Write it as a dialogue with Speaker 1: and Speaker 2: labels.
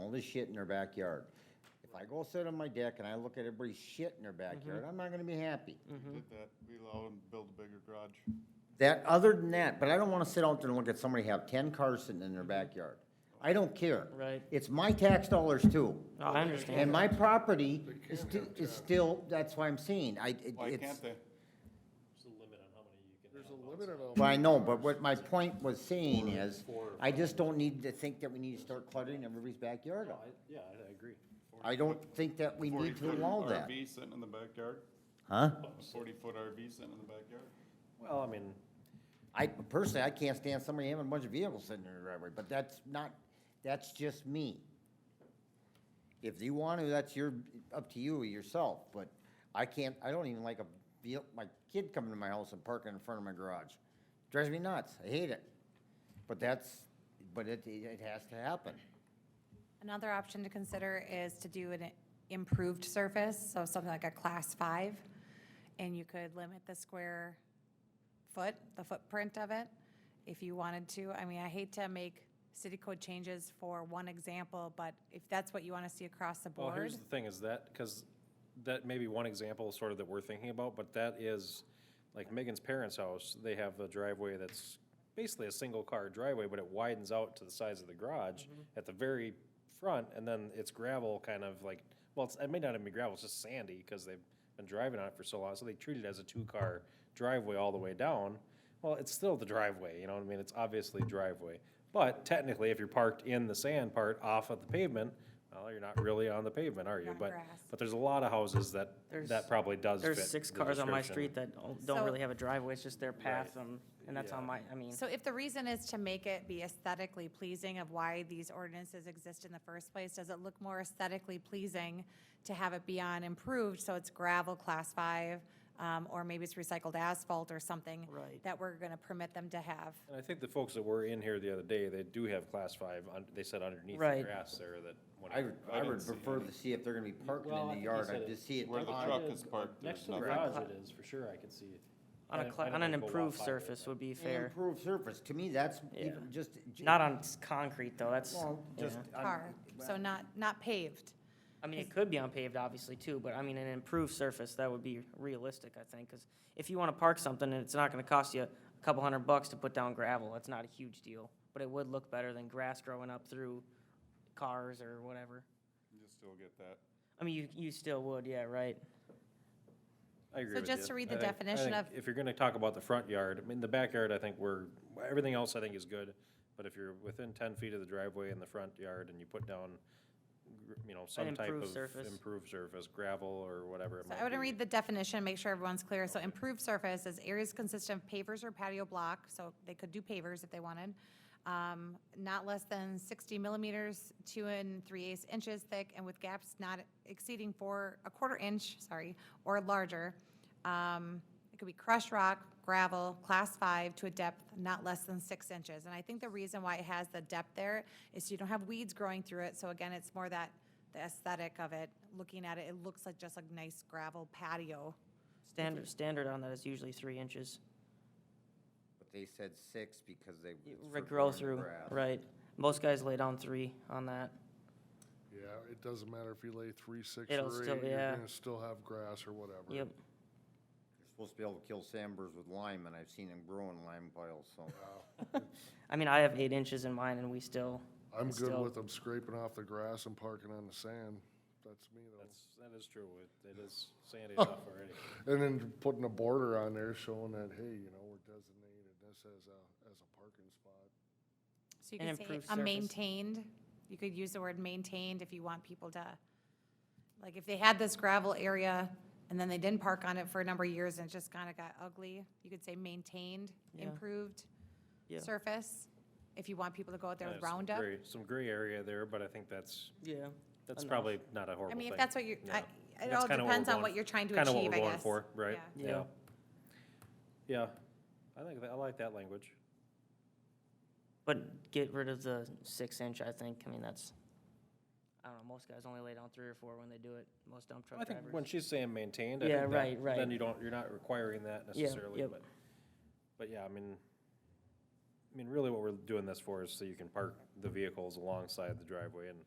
Speaker 1: all this shit in their backyard. If I go sit on my deck and I look at everybody's shit in their backyard, I'm not gonna be happy.
Speaker 2: We did that, we allowed them to build a bigger garage.
Speaker 1: That, other than that, but I don't wanna sit out there and look at somebody have ten cars sitting in their backyard. I don't care.
Speaker 3: Right.
Speaker 1: It's my tax dollars too.
Speaker 3: No, I understand.
Speaker 1: And my property is, sti- is still, that's why I'm saying, I, it-
Speaker 2: Why
Speaker 1: it's,
Speaker 2: can't they?
Speaker 4: There's a limit on all.
Speaker 1: well, I know, but what my point was saying is, I just don't need to think that we need to start cluttering everybody's backyard up.
Speaker 5: Yeah, I agree.
Speaker 1: I don't think that we need to
Speaker 2: 40-foot
Speaker 1: allow that,
Speaker 2: RV sitting in the backyard,
Speaker 1: huh?
Speaker 2: a forty-foot RV sitting in the backyard.
Speaker 5: Well, I mean,
Speaker 1: I, personally, I can't stand somebody having a bunch of vehicles sitting in their driveway, but that's not, that's just me. If you want to, that's your, up to you yourself, but I can't, I don't even like a, vehi- my kid coming to my house and parking in front of my garage. Drives me nuts, I hate it. But that's, but it, it has to happen.
Speaker 6: Another option to consider is to do an improved surface, so something like a class five, and you could limit the square foot, the footprint of it, if you wanted to. I mean, I hate to make city code changes for one example, but if that's what you want to see across the
Speaker 5: well,
Speaker 6: board,
Speaker 5: here's the thing is that, because that may be one example sort of that we're thinking about, but that is, like Megan's parents' house, they have a driveway that's basically a single car driveway, but it widens out to the size of the garage
Speaker 4: Mm-hmm.
Speaker 5: at the very front, and then it's gravel kind of like, well, it's, it may not even be gravel, it's just sandy, because they've been driving on it for so long, so they treat it as a two-car driveway all the way down. Well, it's still the driveway, you know what I mean? It's obviously driveway. But technically, if you're parked in the sand part off of the pavement, well, you're not really on the pavement, are you?
Speaker 6: Not
Speaker 5: But,
Speaker 6: grass.
Speaker 5: but there's a lot of houses that,
Speaker 3: There's-
Speaker 5: that probably does fit.
Speaker 3: There's six
Speaker 5: the
Speaker 3: cars on my
Speaker 5: description.
Speaker 3: street that don't- don't
Speaker 6: So-
Speaker 3: really have a driveway, it's just their path,
Speaker 5: Right.
Speaker 3: and, and that's on
Speaker 5: Yeah.
Speaker 3: my, I mean,
Speaker 6: so if the reason is to make it be aesthetically pleasing of why these ordinances exist in the first place, does it look more aesthetically pleasing to have it be on improved, so it's gravel, class five, um, or maybe it's recycled asphalt or something?
Speaker 3: Right.
Speaker 6: That we're gonna permit them to have.
Speaker 5: And I think the folks that were in here the other day, they do have class five, un- they said underneath the
Speaker 3: Right.
Speaker 5: grass there that.
Speaker 1: I would,
Speaker 5: whatever.
Speaker 1: I
Speaker 2: didn't
Speaker 1: would
Speaker 2: see
Speaker 1: prefer to see if they're gonna be parking
Speaker 7: Well, I
Speaker 1: in the
Speaker 7: think you
Speaker 1: yard,
Speaker 7: said
Speaker 1: I
Speaker 7: it-
Speaker 1: just see it.
Speaker 2: Where the
Speaker 1: on-
Speaker 2: truck is parked,
Speaker 7: Next
Speaker 2: there's
Speaker 7: to the
Speaker 2: nothing.
Speaker 7: garage it is, for sure, I can see it.
Speaker 3: on
Speaker 7: I
Speaker 3: a,
Speaker 7: don't-
Speaker 3: cla-
Speaker 7: I
Speaker 3: on
Speaker 7: don't
Speaker 3: an
Speaker 7: think we'll walk
Speaker 3: improved
Speaker 7: by it,
Speaker 3: surface
Speaker 7: but-
Speaker 3: would be
Speaker 1: An
Speaker 3: fair.
Speaker 1: improved surface, to me, that's even
Speaker 3: Yeah.
Speaker 1: just.
Speaker 3: Not on s- concrete, though, that's,
Speaker 1: Well, just.
Speaker 3: yeah.
Speaker 1: on-
Speaker 6: tar, so not, not paved.
Speaker 3: I mean, it could be unpaved, obviously, too, but I mean, an improved surface, that would be realistic, I think, because if you want to park something and it's not going to cost you a couple hundred bucks to put down gravel, that's not a huge deal, but it would look better than grass growing up through cars or whatever.
Speaker 2: You still get that.
Speaker 3: I mean, you, you still would, yeah, right.
Speaker 5: I agree
Speaker 6: So
Speaker 5: with
Speaker 6: just
Speaker 5: you.
Speaker 6: to read
Speaker 5: I
Speaker 6: the
Speaker 5: think- I
Speaker 6: definition
Speaker 5: think
Speaker 6: of-
Speaker 5: If you're gonna talk about the front yard, I mean, the backyard, I think we're, everything else I think is good. But if you're within ten feet of the driveway in the front yard and you put down, gr- you know, some type
Speaker 3: improved
Speaker 5: of
Speaker 3: surface.
Speaker 5: improved surface, gravel or whatever it
Speaker 6: So
Speaker 5: might be.
Speaker 6: I would read the definition, make sure everyone's clear. So improved surface is areas consistent of pavers or patio block, so they could do pavers if they wanted. um, Not less than sixty millimeters, two and three eighths inches thick, and with gaps not exceeding four, a quarter inch, sorry, or larger. Um, It could be crushed rock, gravel, class five, to a depth not less than six inches. And I think the reason why it has the depth there is you don't have weeds growing through it, so again, it's more that the aesthetic of it, looking at it, it looks like just a nice gravel patio.
Speaker 3: Standard, standard on that is usually three inches,
Speaker 1: But they said six because they. it's for
Speaker 3: Re- grow
Speaker 1: growing
Speaker 3: through,
Speaker 1: grass.
Speaker 3: right. Most guys lay down three on that.
Speaker 4: Yeah, it doesn't matter if you lay three, six,
Speaker 3: It'll
Speaker 4: or
Speaker 3: still-
Speaker 4: eight, you're
Speaker 3: yeah.
Speaker 4: gonna still have grass or whatever.
Speaker 3: Yep,
Speaker 1: You're supposed to be able to kill sandbirds with lime, and I've seen them grow in lime piles, so.
Speaker 3: I mean, I have eight inches in mine and we still,
Speaker 4: I'm
Speaker 3: It's
Speaker 4: good
Speaker 3: still-
Speaker 4: with them scraping off the grass and parking on the sand. That's me though.
Speaker 5: That's, that is true. It- It is sandy
Speaker 6: Oh.
Speaker 5: enough already.
Speaker 4: And then putting a border on there showing that, hey, you know, we're designated this as a, as a parking spot.
Speaker 6: So you
Speaker 3: And
Speaker 6: could say
Speaker 3: improved
Speaker 6: a
Speaker 3: surface.
Speaker 6: maintained, you could use the word maintained if you want people to, like, if they had this gravel area and then they didn't park on it for a number of years and it just kind of got ugly, you could say maintained,
Speaker 3: Yeah.
Speaker 6: improved
Speaker 3: Yeah.
Speaker 6: surface, if you want people to go out there
Speaker 5: Yeah,
Speaker 6: with
Speaker 5: some
Speaker 6: Roundup.
Speaker 5: gray- Some gray area there, but I think that's,
Speaker 3: yeah.
Speaker 5: that's
Speaker 3: Enough.
Speaker 5: probably not a horrible
Speaker 6: I
Speaker 5: thing.
Speaker 6: mean, if that's what you're, I-
Speaker 5: Yeah.
Speaker 6: it
Speaker 5: That's
Speaker 6: all
Speaker 5: kinda what we're
Speaker 6: depends on
Speaker 5: going
Speaker 6: what
Speaker 5: f-
Speaker 6: you're trying to
Speaker 5: Kinda what
Speaker 6: achieve,
Speaker 5: we're
Speaker 6: I
Speaker 5: going
Speaker 6: guess.
Speaker 5: for, right?
Speaker 6: Yeah.
Speaker 3: Yeah.
Speaker 5: Yeah. I think, that- I like that language.
Speaker 3: But get rid of the six inch, I think, I mean, that's, I don't know, most guys only lay down three or four when they do it, most dump
Speaker 5: I
Speaker 3: truck
Speaker 5: think
Speaker 3: drivers.
Speaker 5: when she's saying maintained, I
Speaker 3: Yeah,
Speaker 5: think that-
Speaker 3: right, right.
Speaker 5: Then you don't, you're not requiring that
Speaker 3: Yeah,
Speaker 5: necessarily,
Speaker 3: yep.
Speaker 5: but, but yeah, I mean, I mean, really what we're doing this for is so you can park the vehicles alongside the driveway and